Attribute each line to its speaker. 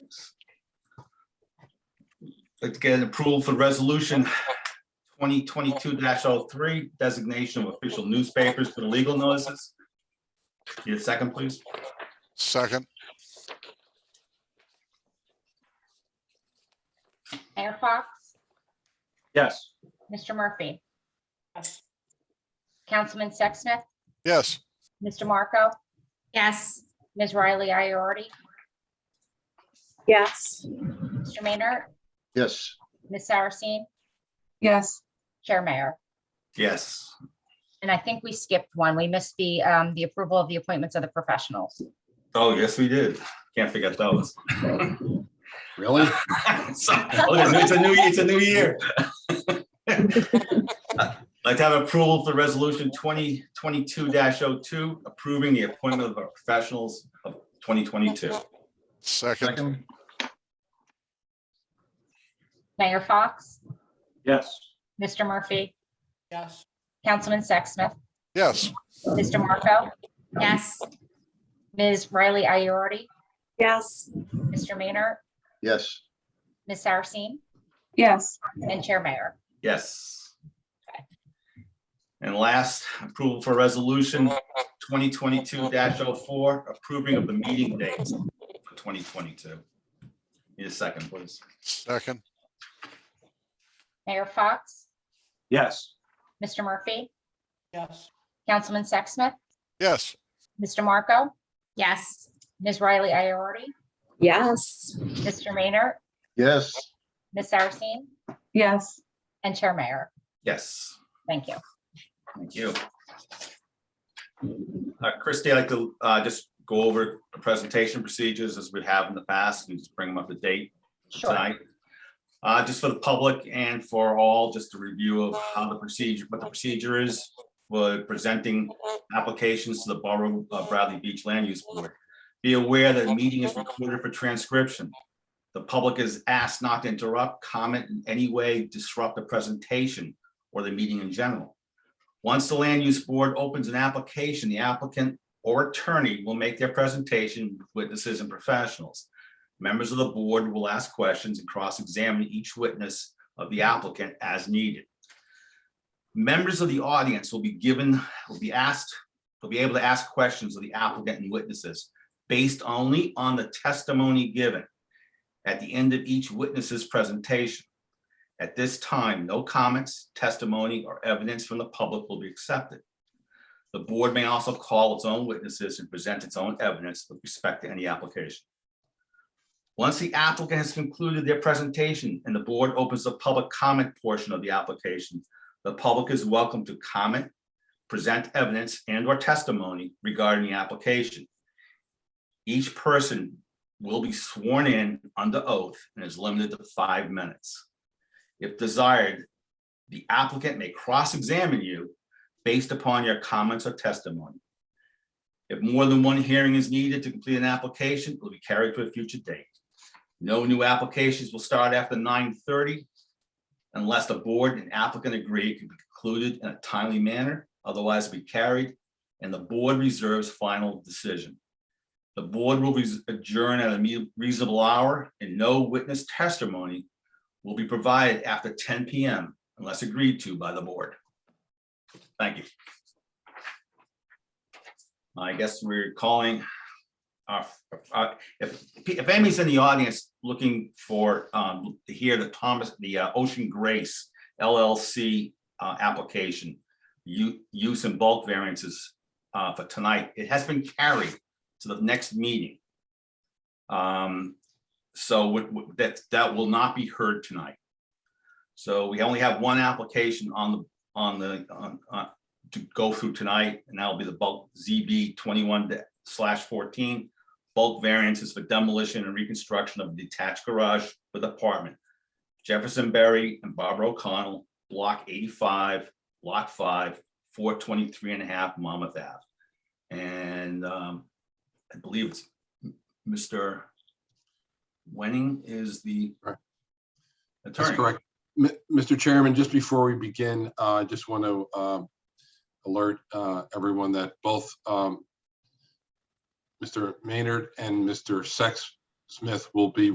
Speaker 1: Like to get an approval for resolution twenty twenty-two 3 designation of official newspapers for the legal notices. Need a second, please?
Speaker 2: Second,
Speaker 3: Mayor Fox,
Speaker 1: Yes.
Speaker 3: Mr. Murphy. Councilman Sexsmith,
Speaker 2: yes,
Speaker 3: Mr. Marco,
Speaker 4: Yes.
Speaker 3: Ms. Riley Iorder,
Speaker 4: Yes.
Speaker 3: Mr. Maynard,
Speaker 5: yes,
Speaker 3: Ms. Saracine,
Speaker 4: Yes.
Speaker 3: Chair Mayor.
Speaker 1: Yes.
Speaker 3: And I think we skipped one. We missed the, um, the approval of the appointments of the professionals.
Speaker 1: Oh, yes, we did. Can't forget those.
Speaker 5: really?
Speaker 1: So, oh, yeah, It's a new, it's a new year. Like to have approval for resolution twenty twenty-two 2 approving the appointment of our professionals of twenty twenty-two.
Speaker 2: second,
Speaker 5: Second,
Speaker 3: Mayor Fox,
Speaker 1: Yes.
Speaker 3: Mr. Murphy,
Speaker 6: yes,
Speaker 3: Councilman Sexsmith,
Speaker 2: yes,
Speaker 3: Mr. Marco,
Speaker 4: Yes.
Speaker 3: Ms. Riley Iorder,
Speaker 4: Yes.
Speaker 3: Mr. Maynard,
Speaker 5: yes,
Speaker 3: Ms. Saracine,
Speaker 4: Yes.
Speaker 3: and Chair Mayor.
Speaker 1: Yes. And last, approval for resolution twenty twenty-two 4 approving of the meeting dates for twenty twenty-two. Need a second, please.
Speaker 2: second,
Speaker 3: Mayor Fox,
Speaker 1: Yes.
Speaker 3: Mr. Murphy,
Speaker 6: yes,
Speaker 3: Councilman Sexsmith,
Speaker 2: yes,
Speaker 3: Mr. Marco,
Speaker 4: Yes.
Speaker 3: Ms. Riley Iorder,
Speaker 4: Yes.
Speaker 3: Mr. Maynard,
Speaker 5: yes,
Speaker 3: Ms. Saracine,
Speaker 4: Yes.
Speaker 3: and Chair Mayor.
Speaker 1: Yes,
Speaker 3: Thank you.
Speaker 1: thank you. Uh, Christie, I'd like to, uh, just go over the presentation procedures as we have in the past and just bring them up to date.
Speaker 3: Sure.
Speaker 1: tonight. Uh, just for the public and for all, just a review of how the procedure, what the procedure is for presenting applications to the Borough of Bradley Beach Land Use Board. Be aware that the meeting is recorded for transcription. The public is asked not to interrupt, comment in any way, disrupt the presentation or the meeting in general. Once the Land Use Board opens an application, the applicant or attorney will make their presentation with witnesses and professionals. Members of the board will ask questions and cross-examine each witness of the applicant as needed. Members of the audience will be given, will be asked, will be able to ask questions of the applicant and witnesses based only on the testimony given at the end of each witness's presentation. At this time, no comments, testimony, or evidence from the public will be accepted. The board may also call its own witnesses and present its own evidence with respect to any application. Once the applicant has concluded their presentation and the board opens the public comment portion of the application, the public is welcome to comment, present evidence and or testimony regarding the application. Each person will be sworn in under oath and is limited to five minutes. If desired, the applicant may cross-examine you based upon your comments or testimony. If more than one hearing is needed to complete an application, it will be carried to a future date. No new applications will start after nine thirty unless the board and applicant agree it can be concluded in a timely manner, otherwise be carried, and the board reserves final decision. The board will res- adjourn at a me- reasonable hour and no witness testimony will be provided after ten PM unless agreed to by the board. Thank you. I guess we're calling our, our- if, if anybody's in the audience looking for, um, to hear the Thomas, the uh, Ocean Grace LLC uh, application, u- use and bulk variances uh, for tonight, it has been carried to the next meeting. Um, so what- what- that, that will not be heard tonight. So we only have one application on the, on the, on, on- to go through tonight, and that'll be the bulk ZB twenty-one slash fourteen. Bulk variances for demolition and reconstruction of detached garage with apartment. Jefferson Berry and Barbara O'Connell, block eighty-five, lot five, 423 and a half Monmouth Ave. And um, I believe it's m- Mr. Wenning is the
Speaker 7: Correct. That's
Speaker 1: attorney.
Speaker 7: correct. M- Mr. Chairman, just before we begin, uh, I just want to alert uh, everyone that both um, Mr. Maynard and Mr. Sex Smith will be